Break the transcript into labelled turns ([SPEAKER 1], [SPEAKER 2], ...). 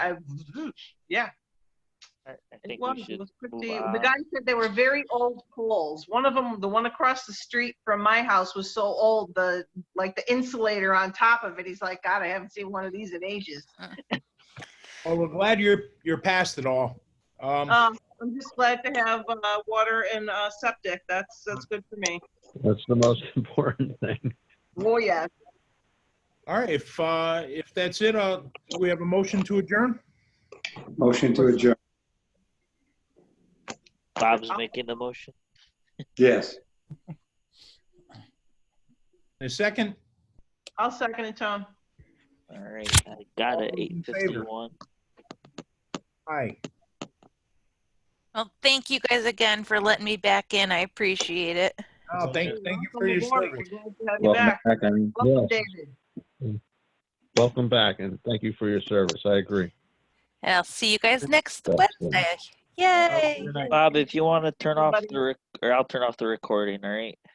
[SPEAKER 1] I, yeah.
[SPEAKER 2] I I
[SPEAKER 1] It
[SPEAKER 2] think
[SPEAKER 1] was.
[SPEAKER 2] we
[SPEAKER 1] It
[SPEAKER 2] should.
[SPEAKER 1] was pretty.
[SPEAKER 2] move on.
[SPEAKER 1] The guy said they were very old poles. One of them, the one across the street from my house was so old, the, like the insulator on top of it. He's like, God, I haven't seen one of these in ages.
[SPEAKER 3] Well, we're glad you're, you're past it all. Um,
[SPEAKER 1] Um, I'm just glad to have, uh, water and, uh, septic. That's, that's good for me.
[SPEAKER 4] That's the most important thing.
[SPEAKER 1] Oh, yeah.
[SPEAKER 3] all right, if, uh, if that's it, uh, do we have a motion to adjourn?
[SPEAKER 5] Motion to adjourn.
[SPEAKER 2] Bob's making the motion.
[SPEAKER 5] Yes.
[SPEAKER 3] A second?
[SPEAKER 1] I'll second it, Tom.
[SPEAKER 2] All right, I got it.
[SPEAKER 3] All
[SPEAKER 2] Eight
[SPEAKER 3] in favor?
[SPEAKER 2] fifty-one.
[SPEAKER 3] Aye.
[SPEAKER 6] Well, thank you guys again for letting me back in. I appreciate it.
[SPEAKER 3] Oh, thank, thank you for
[SPEAKER 1] Welcome
[SPEAKER 3] your
[SPEAKER 1] aboard. We're
[SPEAKER 3] service.
[SPEAKER 1] glad to have you
[SPEAKER 4] Welcome
[SPEAKER 1] back.
[SPEAKER 4] back, I mean,
[SPEAKER 1] Welcome,
[SPEAKER 4] yes,
[SPEAKER 1] David.
[SPEAKER 4] welcome back, and thank you for your service. I agree.
[SPEAKER 6] And I'll see you guys next
[SPEAKER 4] That's it.
[SPEAKER 6] Wednesday. Yay!
[SPEAKER 3] Good night.
[SPEAKER 2] Bob, if you want to turn off
[SPEAKER 1] Everybody-
[SPEAKER 2] the, rec- or I'll turn off the recording, all right?